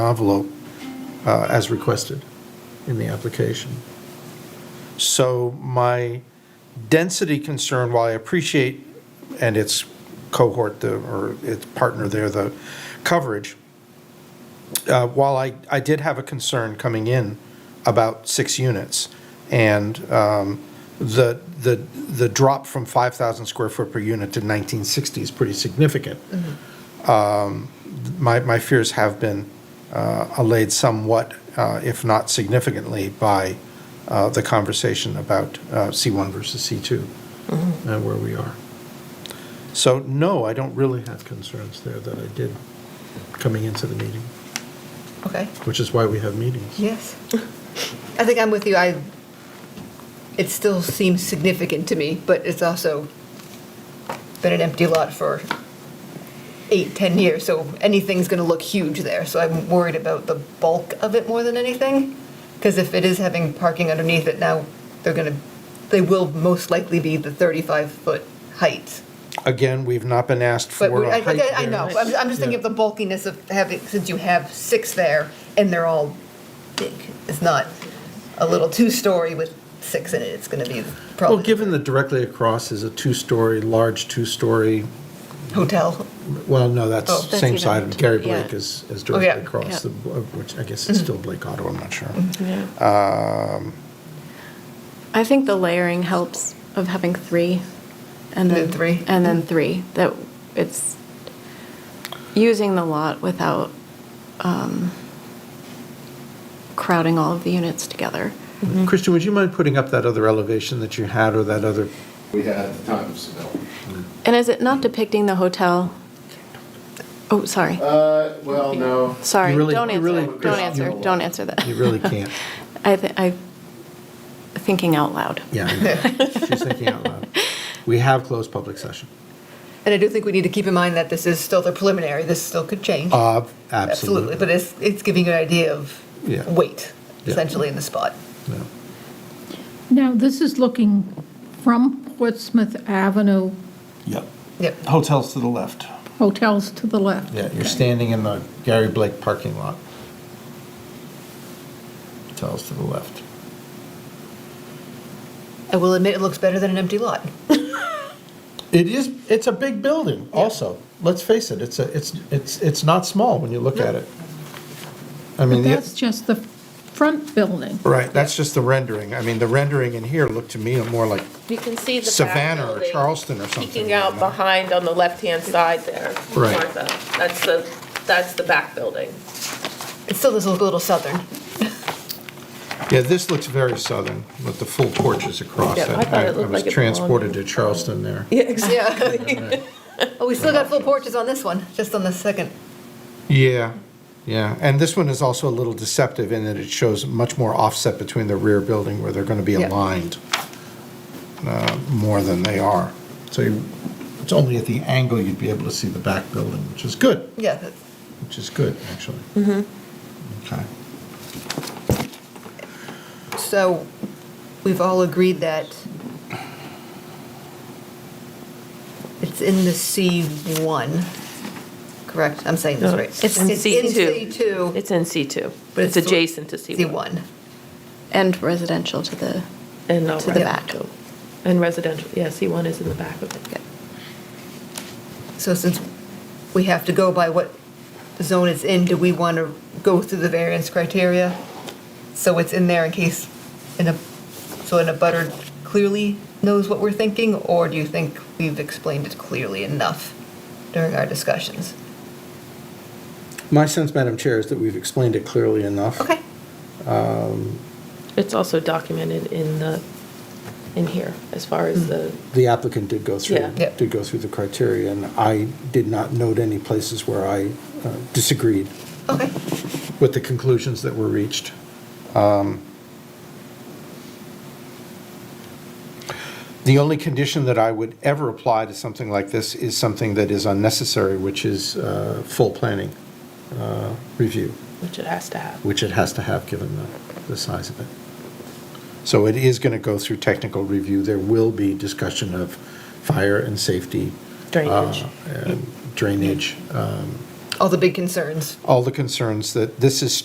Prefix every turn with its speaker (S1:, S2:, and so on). S1: envelope uh, as requested in the application. So my density concern, while I appreciate, and its cohort, the- or its partner there, the coverage, uh, while I, I did have a concern coming in about six units, and um, the, the, the drop from 5,000 square foot per unit to 1960 is pretty significant. Um, My, my fears have been uh, allayed somewhat, uh, if not significantly, by uh, the conversation about uh, C1 versus C2
S2: Mm-hmm.
S1: and where we are. So, no, I don't really have concerns there that I did coming into the meeting
S2: Okay.
S1: which is why we have meetings.
S2: Yes. I think I'm with you. I, it still seems significant to me, but it's also been an empty lot for eight, 10 years, so anything's going to look huge there. So I'm worried about the bulk of it more than anything. Because if it is having parking underneath it now, they're going to, they will most likely be the 35-foot heights.
S1: Again, we've not been asked for
S2: But we-
S1: a
S2: I,
S1: height
S2: I- I
S1: variance.
S2: know, I'm, I'm just thinking of the bulkiness of having, since you have six there, and they're all big. It's not a little two-story with six in it, it's gonna be
S1: Well,
S2: probably
S1: given that directly across is a two-story, large two-story,
S2: hotel.
S1: well, no, that's
S2: Oh,
S3: that's
S1: same
S3: even
S1: side of
S3: two-
S1: Gary
S3: yeah.
S1: Blake is, is
S2: Oh, yeah.
S1: directly
S2: Mm-hmm.
S1: across, the- of which I guess it's still Blake Auto, I'm not sure. Um,
S3: I think the layering helps of having three, and
S2: And
S3: then,
S2: then three.
S3: and then three. That it's using the lot without um, crowding all of the units together.
S1: Christian, would you mind putting up that other elevation that you had or that other?
S4: we had at the time, so.
S3: And is it not depicting the hotel? Oh, sorry,
S4: Uh, well, no,
S3: sorry.
S1: You really-
S3: don't
S1: you
S3: answer.
S1: really-
S3: don't answer.
S4: you-
S3: Don't answer that.
S1: You really can't.
S3: I th- I thinking out loud.
S1: Yeah, I know. she's thinking out loud. We have closed public session.
S2: And I do think we need to keep in mind that this is still the preliminary, this still could change.
S1: Uh,
S2: Absolutely,
S1: Absolutely.
S2: but it's, it's giving you an idea of
S1: Yeah.
S2: weight,
S1: Yeah.
S2: essentially, in the spot.
S1: Yeah.
S5: Now, this is looking from Portsmouth Avenue,
S1: Yep.
S2: Yep,
S1: Hotels to the left.
S5: hotels to the left.
S1: Yeah, you're standing in the Gary Blake parking lot. Tells to the left.
S2: I will admit, it looks better than an empty lot.
S1: It is, it's a big building also. Let's face it, it's a, it's, it's, it's not small when you look at it. I
S5: But
S1: mean, the-
S5: that's just the front building.
S1: right, that's just the rendering. I mean, the rendering in here looked to me more like
S6: You can see the back
S1: Savannah or
S6: building
S1: Charleston or something.
S6: Peeking out behind on the left-hand side there.
S1: Right.
S6: Martha. That's the, that's the back building.
S2: It still does look a little southern.
S1: Yeah, this looks very southern with the full porches across it.
S6: Yeah, I thought it looked like it
S1: was
S6: belonged
S1: transported
S6: in-
S1: to Charleston there.
S6: Yeah, exactly.
S2: Yeah. Oh, we still got full porches on this one, just on the second.
S1: Yeah, yeah, and this one is also a little deceptive in that it shows much more offset between the rear building where they're going to be
S2: Yeah.
S1: aligned uh, more than they are. So you- it's only at the angle you'd be able to see the back building, which is good,
S2: Yeah, that's-
S1: which is good, actually.
S6: Mm-hmm.
S1: Okay.
S2: So we've all agreed that it's in the C1, correct? I'm saying this
S6: No,
S2: right.
S6: it's in C2.
S2: It's in C2,
S6: It's in C2,
S2: But
S6: but
S2: it's
S6: it's
S2: the-
S6: adjacent to C1.
S2: C1.
S3: And residential to the
S6: And not
S3: To the
S6: residential. And residential, yeah, C1 is in the back of it.
S2: So since we have to go by what zone it's in, do we want to go through the variance criteria? So it's in there in case, in a, so in a butter clearly knows what we're thinking? Or do you think we've explained it clearly enough during our discussions?
S1: My sense, Madam Chair, is that we've explained it clearly enough.
S2: Okay.
S6: It's also documented in the, in here, as far as the,
S1: The applicant did go
S6: Yeah.
S1: through,
S2: Yep.
S1: did go through the criteria, and I did not note any places where I uh, disagreed.
S2: Okay.
S1: with the conclusions that were reached. Um, The only condition that I would ever apply to something like this is something that is unnecessary, which is uh, full planning uh, review,
S6: which it has to have.
S1: which it has to have, given the, the size of it. So it is going to go through technical review. There will be discussion of fire and safety. uh,
S6: Drainage.
S1: and Drainage, um,
S2: all the big concerns.
S1: all the concerns that this is